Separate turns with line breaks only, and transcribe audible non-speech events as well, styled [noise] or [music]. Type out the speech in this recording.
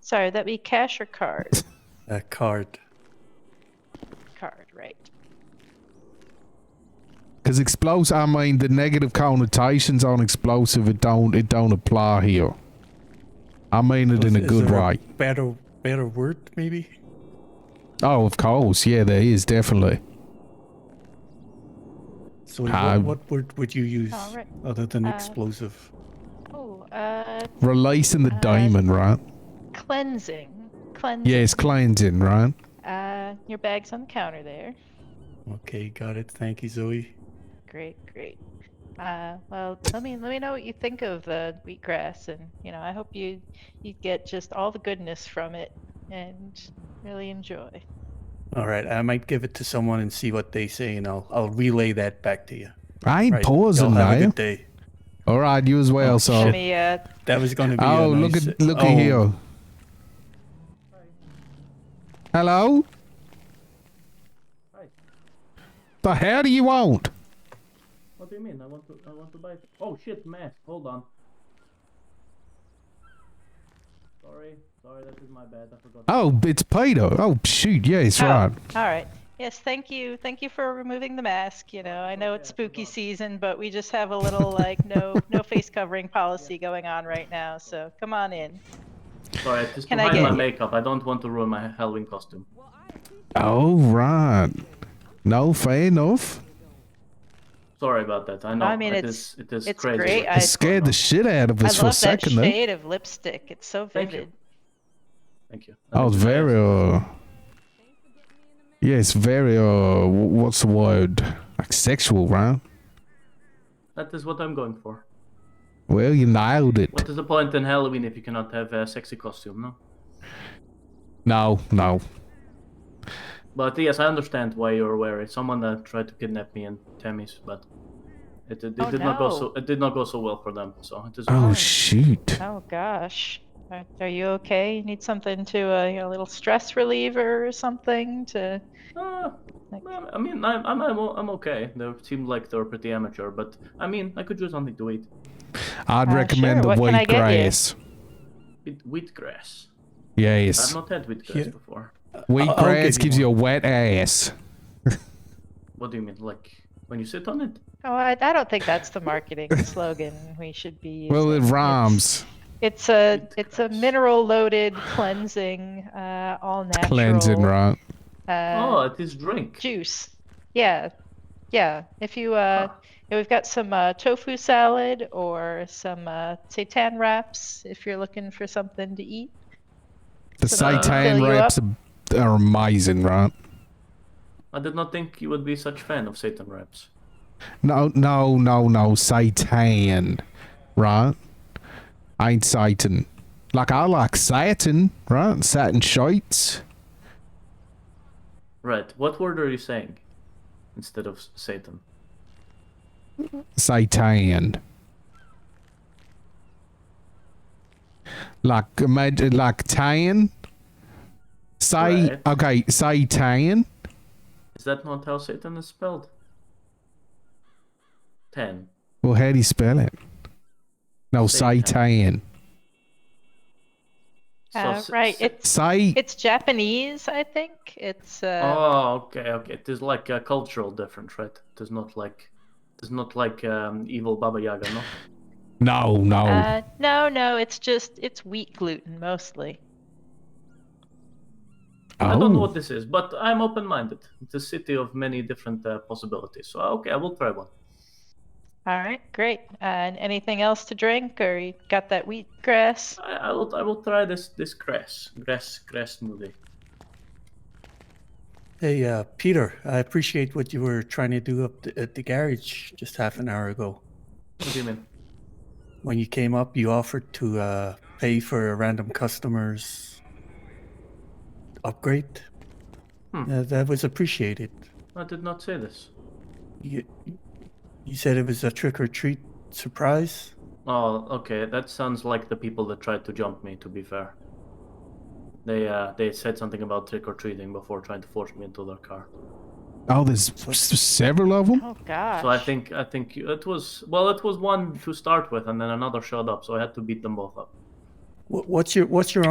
Sorry, that be cash or card?
A card.
card, right.
Because explosive, I mean, the negative connotations on explosive, it don't, it don't apply here. I mean it in a
Is
good
there a
way.
Better, better word maybe.
Oh, of course, yeah, there is definitely.
So what-
Ah.
what, word would you use
Alright.
other than
Uh,
explosive?
Oh, uh,
Releasing the
Uh,
demon, right?
cleansing. Cleansing.
Yeah, it's cleansing, right?
Uh, your bag's on the counter there.
Okay, got it. Thank you, Zoe.
Great, great. Uh, well, let me let me know what you think of the wheatgrass, and you know, I hope you you get just all the goodness from it and really enjoy.
All right, I might give it to someone and see what they say, and I'll I'll relay that back to you.
I ain't
Right.
pausing
y'all have a
now.
good day.
All right, you as well. so,
Let me uh,
That was going to be. a
oh, look
nice-
at look
oh,
at here. Hello. The hell do you want?
What do you mean? I want to I want to buy Oh shit, mask. Hold on. Sorry. Sorry, that is my bad. I forgot.
[laughs]
Oh, it's Peter. Oh shoot, yeah, it's
Oh,
right.
All right. Yes, thank you. Thank you for removing the mask. You know, I know it's spooky season, but we just have a little like no no face covering policy going on right now. So come on in.
Sorry, I just
Can
Can
I
behind my
get-
makeup. I don't want to ruin my Halloween costume.
Oh right. No, fair enough.
Sorry about that. I know.
I mean,
it
it's-
is it is
it's
crazy.
great.
but-
I-
It scared the shit out of us
I
for a
love that
second. there.
shade of lipstick. It's so
Thank you.
vivid.
Thank you.
Oh, it's very uh. Yeah, it's very uh. wh- What's the word? Like sexual, right?
That is what I'm going for.
Well, you nailed it.
What is the point in Halloween if you cannot have a sexy costume, no?
No, no.
But yes, I understand why you're wary. Someone uh, tried to kidnap me and Tammy's, but it, it, it
Oh,
did not go
no.
so it did not go so well for them. So it is.
Oh
Fine.
shoot.
Oh gosh. Are, are you okay? You need something to uh, you know, a little stress reliever or something to
Ah,
Like-
well, I mean, I'm, I'm, I'm, o- I'm okay. They seem like they're pretty amateur, but I mean, I could do something to eat.
I'd
Uh,
recommend
sure,
the
what can I get you?
wheatgrass.
With wheatgrass. I've
Yes,
not had wheatgrass
Yeah.
before.
I'll- I'll give
wheatgrass
you
gives you a wet ass.
What do you mean? Like, when you sit on it?
Oh, I, I don't think that's the
[laughs]
marketing slogan we should be using.
Well, it
It's-
rhymes.
It's a it's a
Goodness.
mineral loaded cleansing, uh, all natural
Cleansing, right?
oh,
uh,
it is drink.
juice. Yeah, yeah. If you uh,
Huh.
yeah, we've got some uh, tofu salad or some uh, seitan wraps if you're looking for something to eat.
The
So that can
seitan
fill you
wraps are, are amazing, right?
I did not think you would be such fan of Satan wraps.
No, no, no, no, seitan, right? Ain't Satan. Like I like satin, right? Satin sheets.
Right. What word are you saying instead of s- Satan?
Seitan. Like imagine, like tan. Say
Right.
okay, say tan.
Is that not how Satan is spelled? Ten.
Well, how do you spell it? No, say tan.
So
Uh,
s-
right.
s-
It's
Say
it's Japanese, I think. It's uh,
Oh, okay, okay. It is like a cultural difference, right? It is not like, it is not like um, evil Baba Yaga, no.
no,
Oh.
no.
uh, no, no. It's just it's wheat gluten mostly.
I don't know
oh,
what this is, but I'm open-minded. It's a city of many different uh, possibilities. So okay, I will try one.
All right, great. Uh, and anything else to drink, or you got that wheatgrass?
I, I will, I will try this this grass, grass, grass smoothie.
Hey, uh, Peter, I appreciate what you were trying to do up th- at the garage just half an hour ago.
What do you mean?
When you came up, you offered to uh, pay for a random customer's upgrade.
Hmm.
Uh, that was appreciated.
I did not say this.
You, you said it was a trick or treat surprise.
Oh, okay. That sounds like the people that tried to jump me. To be fair, they uh, they said something about trick or treating before trying to force me into their car.
oh, there's s- several of them.
Oh gosh.
So I think I think it was well, it was one to start with, and then another showed up, so I had to beat them both up.
Wh- What's your What's your